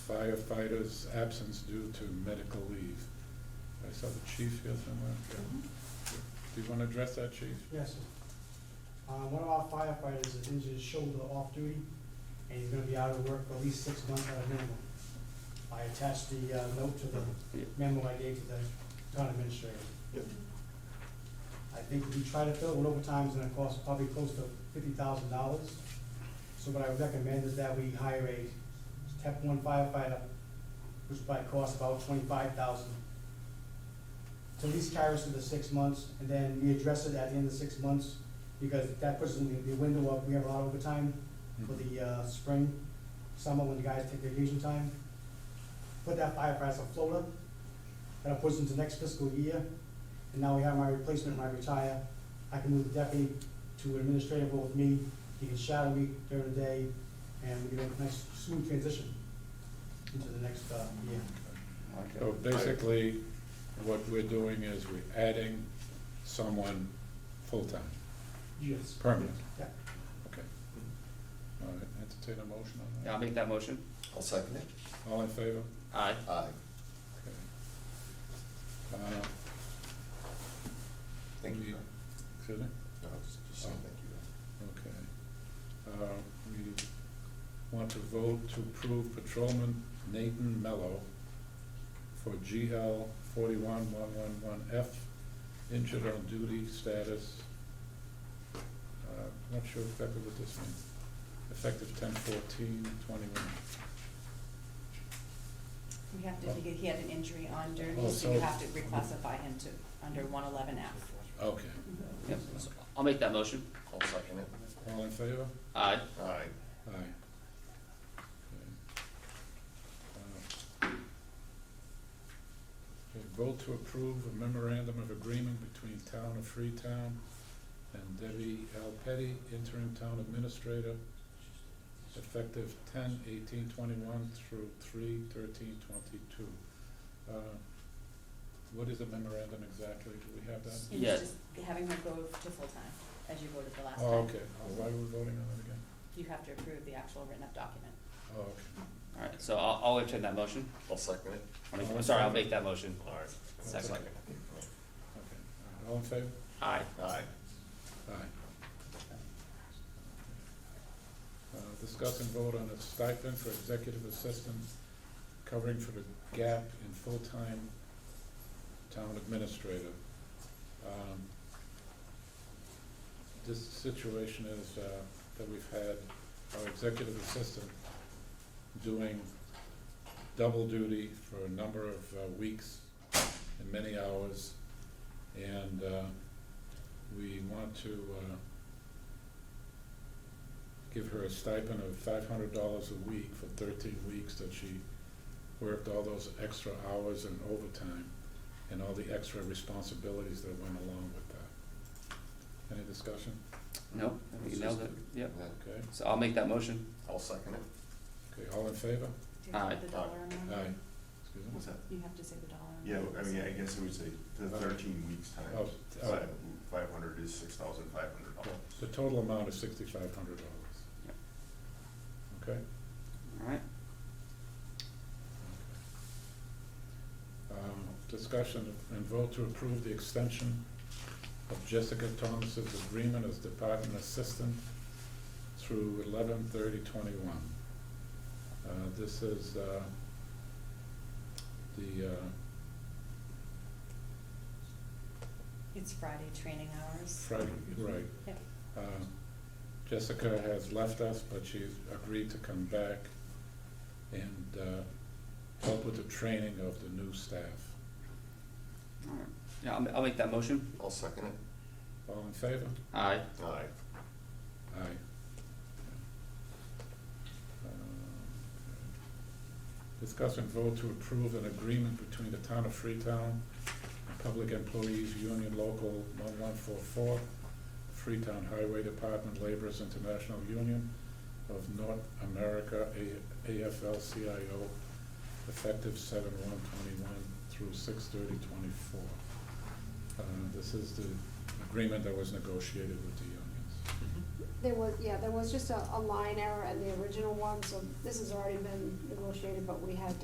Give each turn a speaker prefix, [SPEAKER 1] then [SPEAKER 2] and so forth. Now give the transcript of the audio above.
[SPEAKER 1] firefighter's absence due to medical leave. I saw the chief here somewhere. Yeah. Do you want to address that, chief?
[SPEAKER 2] Yes, sir. Uh, one of our firefighters has injured his shoulder off duty, and he's gonna be out of work for at least six months at a minimum. I attached the, uh, note to the memo I gave to the town administrator.
[SPEAKER 3] Yep.
[SPEAKER 2] I think if we try to fill it with overtime, it's gonna cost probably close to fifty thousand dollars. So what I would recommend is that we hire a step one firefighter, which probably costs about twenty-five thousand to at least carry us through the six months, and then we address it at the end of six months, because that puts in the- the window of, we have a lot of overtime for the, uh, spring, summer, when the guys take vacation time. Put that firefighter as a floater, that'll put us into next fiscal year, and now we have my replacement, when I retire, I can move the deputy to an administrative role with me, he can shadow me during the day, and we can make a nice smooth transition into the next, uh, year.
[SPEAKER 1] So basically, what we're doing is we're adding someone full-time,
[SPEAKER 2] Yes.
[SPEAKER 1] permanent.
[SPEAKER 2] Yeah.
[SPEAKER 1] Okay. All right, entertain a motion on
[SPEAKER 4] I'll
[SPEAKER 1] that.
[SPEAKER 4] make that motion.
[SPEAKER 3] I'll second it.
[SPEAKER 1] All in favor?
[SPEAKER 4] Aye.
[SPEAKER 3] Aye.
[SPEAKER 1] Okay. Uh,
[SPEAKER 3] Thank you.
[SPEAKER 1] we-
[SPEAKER 3] John.
[SPEAKER 1] Excuse me?
[SPEAKER 3] No, I was just saying thank you. John.
[SPEAKER 1] Okay. Uh, We want to vote to approve patrolman Nathan Mello for GL forty-one one one one F, injured on duty status. Uh, Not sure exactly what this means. Effective ten fourteen twenty-one.
[SPEAKER 5] We have to, he had an injury on
[SPEAKER 1] Oh,
[SPEAKER 5] duty, so
[SPEAKER 1] so-
[SPEAKER 5] you have to reclassify him to, under one eleven F.
[SPEAKER 1] Okay.
[SPEAKER 4] Yep, so I'll make that motion.
[SPEAKER 3] I'll second it.
[SPEAKER 1] All in favor?
[SPEAKER 4] Aye.
[SPEAKER 3] Aye.
[SPEAKER 1] Aye. Okay. Uh, okay, Vote to approve a memorandum of agreement between Town of Freetown and Debbie L. Petty, interim town administrator, effective ten eighteen twenty-one through three thirteen twenty-two. Uh, What is a memorandum exactly? Do we have that?
[SPEAKER 5] And
[SPEAKER 4] Yeah.
[SPEAKER 5] he's just having her go to full-time, as you voted the last
[SPEAKER 1] Oh,
[SPEAKER 5] time.
[SPEAKER 1] okay. Why are we voting on it again?
[SPEAKER 5] You have to approve the actual written-up document.
[SPEAKER 1] Oh, okay.
[SPEAKER 4] All right, so I'll, I'll entertain that motion.
[SPEAKER 3] I'll second it.
[SPEAKER 4] I'll make- I'm sorry, I'll make that motion. All right.
[SPEAKER 3] I'll
[SPEAKER 4] Second.
[SPEAKER 3] it.
[SPEAKER 1] Okay. All right. All in favor?
[SPEAKER 4] Aye.
[SPEAKER 3] Aye.
[SPEAKER 1] Aye. Uh, Discuss and vote on a stipend for executive assistant covering for the gap in full-time town administrator. Um, This situation is uh, that we've had our executive assistant doing double duty for a number of uh, weeks and many hours. And uh, we want to uh, give her a stipend of five hundred dollars a week for thirteen weeks that she worked all those extra hours and overtime and all the extra responsibilities that went along with that. Any discussion?
[SPEAKER 4] No, you nailed it. Yep.
[SPEAKER 3] And then
[SPEAKER 1] Okay,
[SPEAKER 4] So I'll make that motion.
[SPEAKER 3] I'll second it.
[SPEAKER 1] okay, all in favor?
[SPEAKER 5] Do you have
[SPEAKER 4] Aye.
[SPEAKER 5] The dollar amount?
[SPEAKER 1] Aye. Excuse me?
[SPEAKER 6] What's that?
[SPEAKER 5] You have to say the dollar amount.
[SPEAKER 6] Yeah, I mean, I guess it would say the thirteen weeks
[SPEAKER 1] Oh,
[SPEAKER 6] times
[SPEAKER 1] oh,
[SPEAKER 6] five hundred is six thousand five hundred
[SPEAKER 1] okay.
[SPEAKER 6] dollars.
[SPEAKER 1] The total amount is sixty-five hundred dollars.
[SPEAKER 4] Yep.
[SPEAKER 1] Okay?
[SPEAKER 4] All right.
[SPEAKER 1] Um, Discussion and vote to approve the extension of Jessica Thomas's agreement as department assistant through eleven thirty twenty-one. This is uh, the, uh,
[SPEAKER 5] It's Friday training hours.
[SPEAKER 1] Friday, right.
[SPEAKER 5] Yep.
[SPEAKER 1] Uh, Jessica has left us, but she's agreed to come back and uh, help with the training of the new staff.
[SPEAKER 4] All right. Yeah, I'll, ma- I'll make that motion.
[SPEAKER 3] I'll second it.
[SPEAKER 1] All in favor?
[SPEAKER 4] Aye.
[SPEAKER 3] Aye.
[SPEAKER 1] Aye. Discuss and vote to approve an agreement between the town of Freetown and Public Employees Union Local one one four four, Freetown Highway Department Laborers International Union of North America, A- AFL-CIO, effective seven one twenty-one through six thirty twenty-four. Uh, This is the agreement that was negotiated with the unions.
[SPEAKER 7] There was, yeah, there was just a, a line error in the original one, so this has already been negotiated, but we had